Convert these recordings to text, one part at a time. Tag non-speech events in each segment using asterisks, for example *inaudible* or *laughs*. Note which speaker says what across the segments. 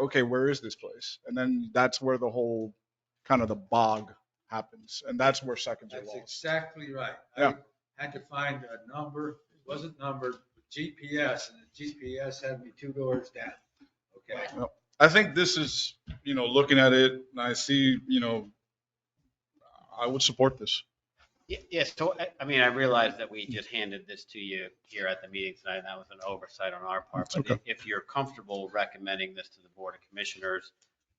Speaker 1: okay, where is this place? And then that's where the whole kind of the bog happens. And that's where seconds are
Speaker 2: That's
Speaker 1: lost.
Speaker 2: exactly right.
Speaker 1: Yeah.
Speaker 2: I had to find a number, it wasn't numbered, but GPS, and the GPS had me two doors down. Okay,
Speaker 1: I think this is, you know, looking at it and I see, you know, I would support this.
Speaker 3: Ye- Yeah, so, I- I mean, I realize that we just handed this to you here at the meeting tonight, and that was an oversight on our part.
Speaker 1: It's
Speaker 3: But
Speaker 1: okay.
Speaker 3: i- if you're comfortable recommending this to the Board of Commissioners,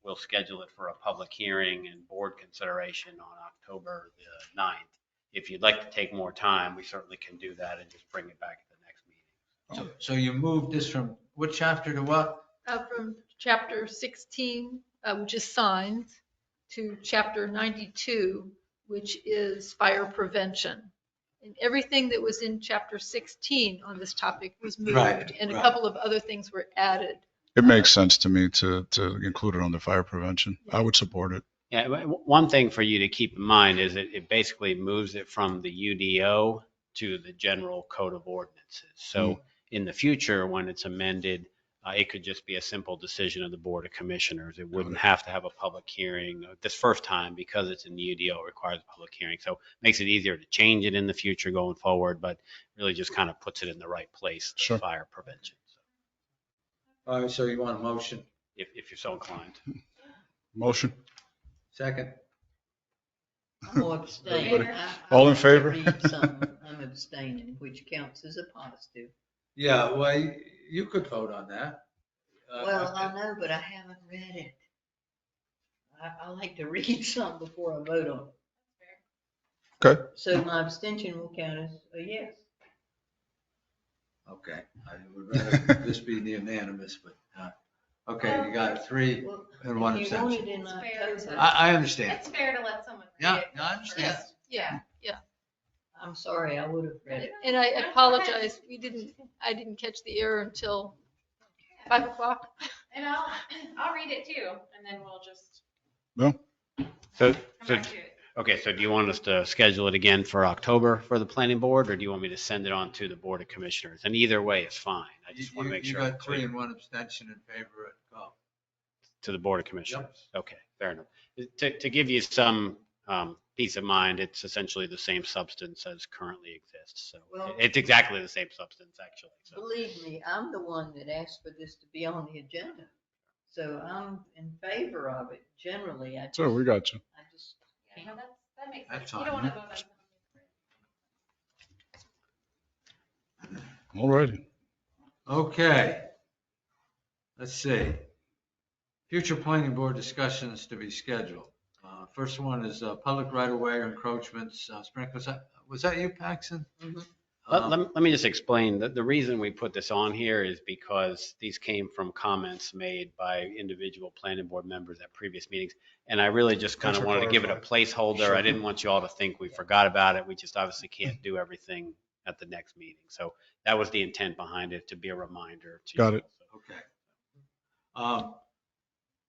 Speaker 3: we'll schedule it for a public hearing and board consideration on October the 9th. If you'd like to take more time, we certainly can do that and just bring it back at the next meeting.
Speaker 2: so, so you moved this from what chapter to what?
Speaker 4: Uh, from chapter 16, uh, which is signs, to chapter 92, which is fire prevention. And everything that was in chapter 16 on this topic was moved,
Speaker 2: Right,
Speaker 4: and a
Speaker 2: right.
Speaker 4: couple of other things were added.
Speaker 1: It makes sense to me to, to include it on the fire prevention. I would support it.
Speaker 3: Yeah, w- w- one thing for you to keep in mind is it, it basically moves it from the UDO to the general code of ordinances. So in the future, when it's amended, uh, it could just be a simple decision of the Board of Commissioners. It wouldn't have to have a public hearing uh, this first time because it's in the UDO it requires a public hearing. So it makes it easier to change it in the future going forward, but really just kind of puts it in the right place, the
Speaker 1: Sure.
Speaker 3: fire prevention. So
Speaker 2: All right, Uh, so you want a motion,
Speaker 3: If, if you're so inclined.
Speaker 1: Motion.
Speaker 2: second?
Speaker 5: I'm gonna abstain.
Speaker 1: Everybody-
Speaker 5: I- I
Speaker 1: all in
Speaker 5: want to
Speaker 1: favor?
Speaker 5: read something. I'm abstaining, which counts as a positive.
Speaker 2: Yeah, well, you- you could vote on that. Uh,
Speaker 5: Well, I know, but I haven't read it. I, I like to *laughs* read some before I vote on it.
Speaker 1: Okay.
Speaker 5: So my abstention will count as a yes.
Speaker 2: Okay, I would rather *laughs* this be unanimous, but, uh, okay, you got three
Speaker 5: Well,
Speaker 2: and one
Speaker 5: if you want
Speaker 2: abstention.
Speaker 5: it in
Speaker 6: It's fair, it's
Speaker 5: October,
Speaker 6: a-
Speaker 2: I, I understand.
Speaker 6: It's fair to let someone
Speaker 2: Yeah,
Speaker 6: read it.
Speaker 2: no, I understand.
Speaker 6: first.
Speaker 4: Yeah, yeah.
Speaker 5: I'm sorry, I would have read it.
Speaker 4: And I apologize, we didn't, I didn't catch the error until 5 o'clock.
Speaker 6: And I'll, *clears throat* I'll read it too, and then we'll just
Speaker 3: So,
Speaker 6: come
Speaker 3: so
Speaker 6: back to it.
Speaker 3: Okay, so do you want us to schedule it again for October for the planning board, or do you want me to send it on to the board of commissioners? And either way is fine. I
Speaker 2: You,
Speaker 3: just want to
Speaker 2: you-
Speaker 3: make
Speaker 2: you
Speaker 3: sure I'm
Speaker 2: got three
Speaker 3: clear
Speaker 2: and one abstention in favor of uh, golf.
Speaker 3: to the board of commissioners. Okay, fair enough. To, to give you some um, peace of mind, it's essentially the same substance as currently exists. So
Speaker 5: Well-
Speaker 3: it's exactly the same substance, actually. So
Speaker 5: Believe me, I'm the one that asked for this to be on the agenda. So I'm in favor of it generally. I
Speaker 1: So we got you.
Speaker 5: I just
Speaker 6: Yeah, no, that's- That makes
Speaker 2: That's
Speaker 6: sense. You
Speaker 2: fine,
Speaker 6: don't want to
Speaker 2: huh?
Speaker 6: vote on something.
Speaker 1: All righty.
Speaker 2: Okay. Let's see. Future planning board discussions to be scheduled. Uh, First one is uh, public right-of-way encroachments, uh, Sprinkler, was that- was that you, Paxton?
Speaker 5: Mhm.
Speaker 3: let,
Speaker 2: Um,
Speaker 3: Mm-hmm. let me- let me just explain that the reason we put this on here is because these came from comments made by individual planning board members at previous meetings. And I really just kind
Speaker 1: Thanks
Speaker 3: of
Speaker 1: for
Speaker 3: wanted to give it a placeholder. I
Speaker 1: Sure.
Speaker 3: didn't want you all to think we forgot about it. We just obviously can't do everything at the next meeting. So that was the intent behind it, to be a reminder. to you
Speaker 1: Got it.
Speaker 3: all.
Speaker 2: Okay. Um,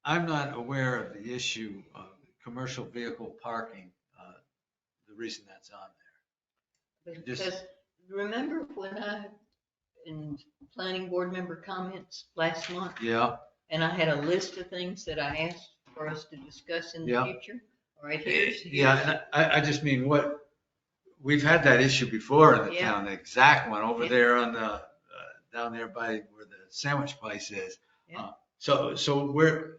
Speaker 2: I'm not aware of the issue of commercial vehicle parking, uh, the reason that's on Just-
Speaker 5: Because remember when I, in planning board member comments last month,
Speaker 2: there. Yeah,
Speaker 5: and I had a list of things that I asked for us to discuss in the
Speaker 2: Yeah.
Speaker 5: future? All right, here's,
Speaker 2: yeah, and I, I just mean what, we've had that issue before in the
Speaker 5: Yeah.
Speaker 2: town, the exact one over
Speaker 5: Yeah.
Speaker 2: there on the, uh, down there by where the sandwich place is.
Speaker 5: Yeah.
Speaker 2: Uh, So, so where,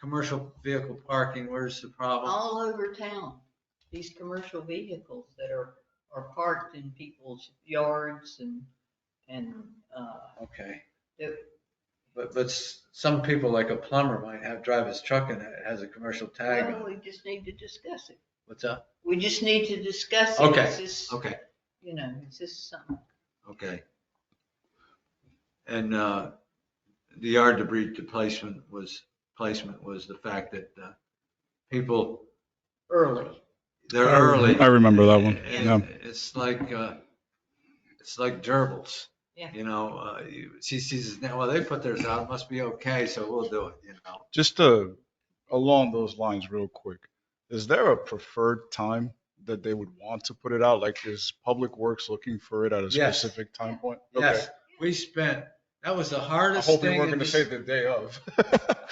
Speaker 2: commercial vehicle parking, where's the problem?
Speaker 5: all over town, these commercial vehicles that are, are parked in people's yards and, and, uh,
Speaker 2: Okay.
Speaker 5: Yep.
Speaker 2: But, but s- some people, like a plumber, might have, drive his truck and it has a commercial tag on
Speaker 5: well,
Speaker 2: it.
Speaker 5: we just need to discuss it.
Speaker 2: What's up?
Speaker 5: We just need to discuss it.
Speaker 2: Okay,
Speaker 5: Is this,
Speaker 2: Okay,
Speaker 5: you know, is this something?
Speaker 2: okay. And, uh, the yard debris placement was, placement was the fact that, uh, people,
Speaker 5: Early.
Speaker 2: they're early.
Speaker 1: I remember that one.
Speaker 2: And
Speaker 1: Yeah.
Speaker 2: It's like, uh, it's like gerbils.
Speaker 5: Yeah.
Speaker 2: You know, uh, you- she sees, it now, well, they put theirs out, it must be okay, so we'll do it, you know?
Speaker 1: Just uh along those lines real quick, is there a preferred time that they would want to put it out? Like is Public Works looking for it at a
Speaker 2: Yes.
Speaker 1: specific time point? Okay.
Speaker 2: Yes, we spent, that was the
Speaker 1: I
Speaker 2: hardest thing.
Speaker 1: hope we weren't going
Speaker 2: in
Speaker 1: to
Speaker 2: this-
Speaker 1: say the day of.